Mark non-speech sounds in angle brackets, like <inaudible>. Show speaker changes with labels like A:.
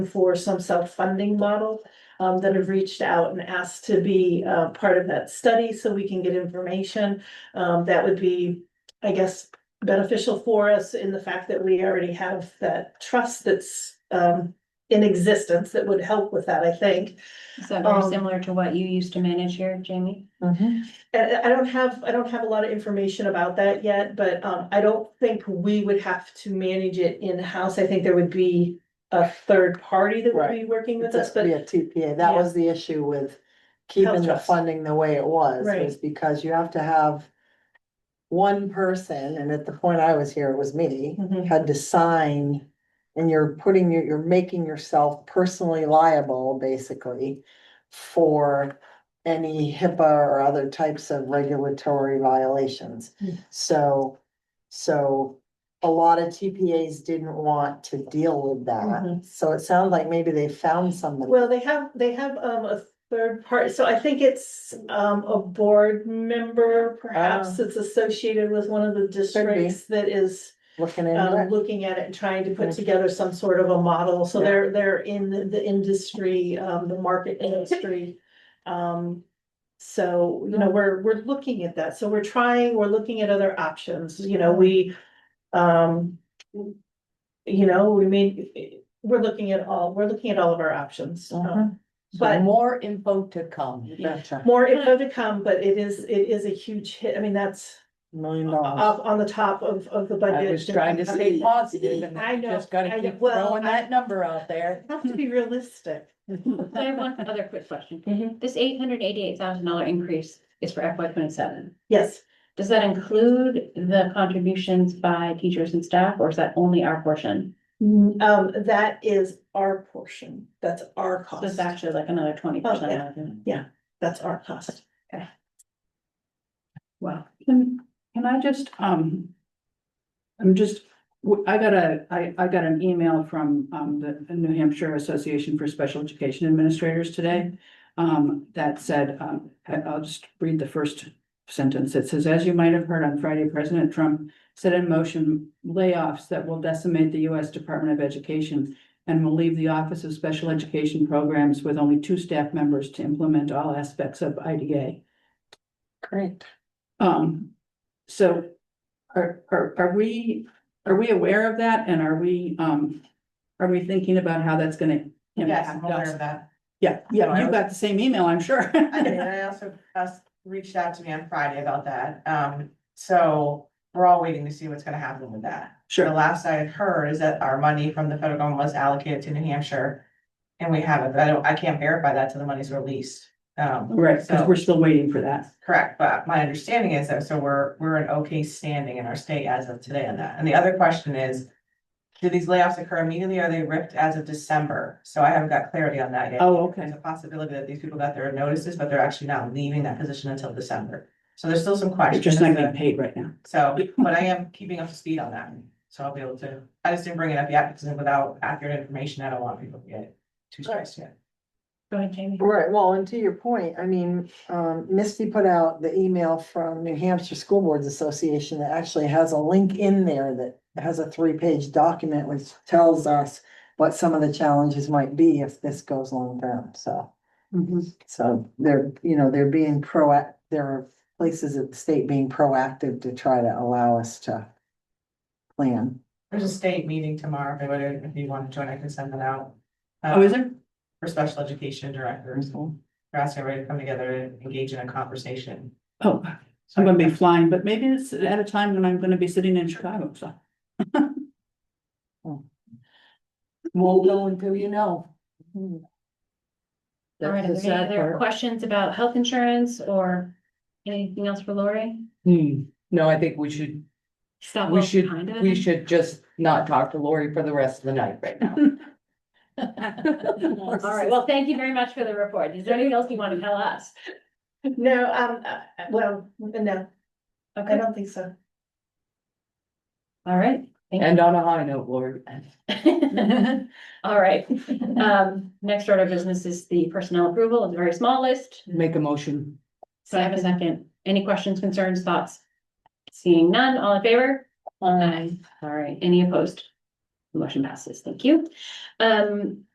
A: for some self-funding model um, that have reached out and asked to be uh, part of that study so we can get information. Um, that would be, I guess, beneficial for us in the fact that we already have that trust that's um, in existence that would help with that, I think.
B: Is that very
A: Um,
B: similar to what you used to manage here, Jamie?
A: And I I don't have, I don't have a lot of information about that yet, but um, I don't think we would have to manage it in-house. I think there would be a third party that would be working with us, but
C: Yeah, TPA, that
A: Yeah.
C: was the issue with keeping
A: Health
C: the
A: trust.
C: funding the way it was,
A: Right.
C: was because you have to have. One person, and at the point I was here, it was me,
A: Mhm.
C: had to sign. And you're putting, your- you're making yourself personally liable, basically, for any HIPAA or other types of regulatory violations.
A: Mm.
C: So, so a lot of TPAs didn't want to deal with that.
A: Mhm.
C: So it sounds like maybe they found somebody.
A: Well, they have, they have um a third part, so I think it's um a board member perhaps that's associated with one of the districts that is.
C: looking
A: Um,
C: into
A: looking at it and trying to put
C: Mhm.
A: together some sort of a model, so
C: Yeah.
A: they're, they're in the, the industry, um, the
D: <laughs>
A: market industry. Um, so, you know, we're, we're looking at that, so we're trying, we're looking at other options, you know, we, um. You know, we mean, we're looking at all, we're looking at all of our options, um,
C: Mhm.
A: but
C: more info to come.
D: Mm-hmm.
A: more info to come, but it is, it is a huge hit. I mean, that's
C: Million dollars.
A: up on the top of, of the budget.
D: I was trying to stay positive and
A: I know,
D: just gotta
A: I know.
D: keep
A: Well,
D: throwing
A: I-
D: that number out there.
A: Have to be realistic.
B: I have one other quick question.
A: Mhm.
B: This eight hundred eighty-eight thousand dollar increase is for FY twenty-seven.
A: Yes,
B: Does that include the contributions by teachers and staff, or is that only our portion?
A: um, that is our portion. That's our
B: So it's
A: cost.
B: actually like another twenty
A: Oh, yeah.
B: percent.
A: That's our
B: <laughs>
A: cost.
B: Wow.
E: Can, can I just, um, I'm just, w- I got a, I, I got an email from, um, the the New Hampshire Association for Special Education Administrators today. Um, that said, um, I- I'll just read the first sentence. It says, as you might have heard on Friday, President Trump set in motion layoffs that will decimate the US Department of Education and will leave the Office of Special Education Programs with only two staff members to implement all aspects of IDA.
C: Great.
E: Um, so are, are, are we, are we aware of that and are we, um, are we thinking about how that's gonna impact us?
F: that.
E: Yeah,
F: No, I
E: yeah, you
F: was-
E: got the same email, I'm sure.
F: <laughs> I did, and I also asked, reached out to me on Friday about that, um, so we're all waiting to see what's gonna happen with that. The
E: Sure,
F: last I had heard is that our money from the federal government was allocated to New Hampshire. And we haven't, but I don't, I can't verify that till the money's released, um,
E: right, because
F: So-
E: we're still waiting for that.
F: correct, but my understanding is that, so we're, we're in okay standing in our state as of today on that, and the other question is. Do these layoffs occur immediately, or are they ripped as of December, so I haven't got clarity on that yet.
E: Oh, okay,
F: There's a possibility that these people got their notices, but they're actually not leaving that position until December. So there's still some
E: they're
F: questions.
E: just not getting paid right now.
F: So, but I am keeping up to speed on that, so I'll be able to, I just didn't bring it up yet, because without accurate information, I don't want people to get too stressed yet.
B: Go ahead, Jamie.
C: Right, well, and to your point, I mean, um, Misty put out the email from New Hampshire School Boards Association that actually has a link in there that has a three-page document which tells us what some of the challenges might be if this goes long-term, so.
F: Mm-hmm.
C: So they're, you know, they're being proact, there are places at the state being proactive to try to allow us to plan.
F: There's a state meeting tomorrow, if anybody, if you want to join, I can send that out. uh,
E: Oh, is there?
F: For special education directors, they're asking everybody to come together and engage in a conversation.
E: Oh,
F: So
E: I'm gonna be flying, but maybe it's at a time when I'm gonna be sitting in Chicago, so.
D: Won't know until you know.
B: Hmm. All right, are
D: That's the
B: there any
D: sad
B: other
D: part.
B: questions about health insurance or anything else for Lori?
D: Hmm. No, I think we should,
B: Stop
D: we
B: walking
D: should,
B: behind it.
D: we should just not talk to Lori for the rest of the night right now.
B: <laughs> All right, well, thank you very much for the report. Is there anything else you want to tell us?
A: No, um, uh, uh, well, no, I
B: Okay,
A: don't think so.
B: all right. Thank you.
D: And on a high note, Lori.
B: <laughs> All right, um, next order of business is the personnel approval, it's a very small list,
D: Make a motion.
B: so I have a second, any questions, concerns, thoughts? Seeing none, all in favor? Aye. All right, any opposed? Motion passes, thank you. Um,